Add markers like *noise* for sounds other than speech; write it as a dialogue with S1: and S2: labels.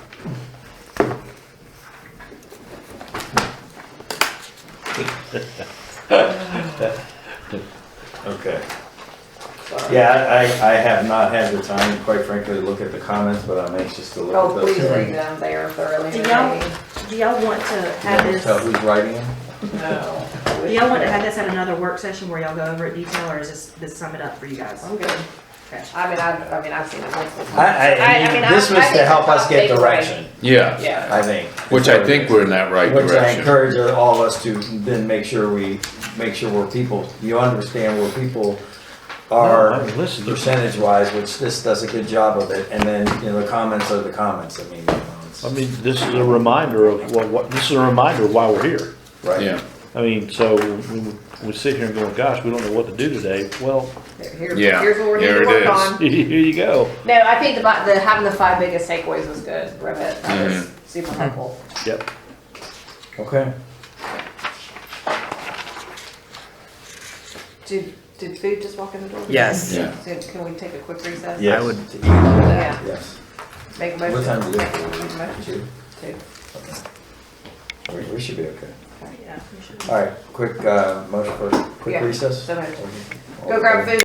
S1: Okay.
S2: Sorry.
S1: Yeah, I, I I have not had the time, quite frankly, to look at the comments, but I'm anxious to look
S2: Oh,
S1: at those.
S2: please read them, they are thoroughly
S3: Yeah.
S2: entertaining.
S3: Do y'all want to have
S1: Can you
S3: this,
S1: Tell who's writing them?
S2: No.
S3: do y'all want to have this at another work session where y'all go over it detail, or is this, this sum it up for you guys?
S2: I'm good.
S3: Okay.
S2: I mean, I've, I mean, I've seen it multiple times.
S1: I,
S2: I- I
S1: I,
S2: mean,
S1: this
S2: I-
S1: was
S2: I
S1: to
S2: think
S1: help
S2: the
S1: us get
S2: top takeaway-
S1: direction,
S4: Yeah,
S2: Yeah.
S1: I think.
S4: which I think we're in that right
S1: Which I
S4: direction.
S1: encourage all of us to then make sure we, make sure we're people, you understand where people
S5: No,
S1: are
S5: I mean, listen, there's-
S1: percentage wise, which this does a good job of it, and then, you know, the comments are the comments, I mean. you know, it's-
S5: I mean, this is a reminder of, well, what, this is a reminder of why we're here.
S1: Right.
S4: Yeah,
S5: I mean, so when we sit here and going, gosh, we don't know what to do today, well, *laughs*
S2: Here-
S4: Yeah,
S2: Here's what we're here
S4: there
S2: to
S4: it
S2: work
S4: is.
S2: on.
S5: here you go.
S2: No, I think the, bi- the, having the five biggest takeaways was good, Rivet, that was super helpful.
S5: Yep.
S1: Okay.
S2: Did, did food just walk in the door?
S6: Yes.
S4: yeah.
S2: So Can we take a quick recess?
S1: Yes.
S6: would-
S2: Yeah,
S1: Yes.
S2: make a motion.
S1: What time do you
S2: Make a
S1: leave?
S2: motion. Two.
S1: We, we should be okay.
S3: Yeah, we should.
S1: All right, quick, uh, motion for, quick
S2: Yeah,
S1: recess?
S2: so moved.
S1: Okay.
S2: Go grab food.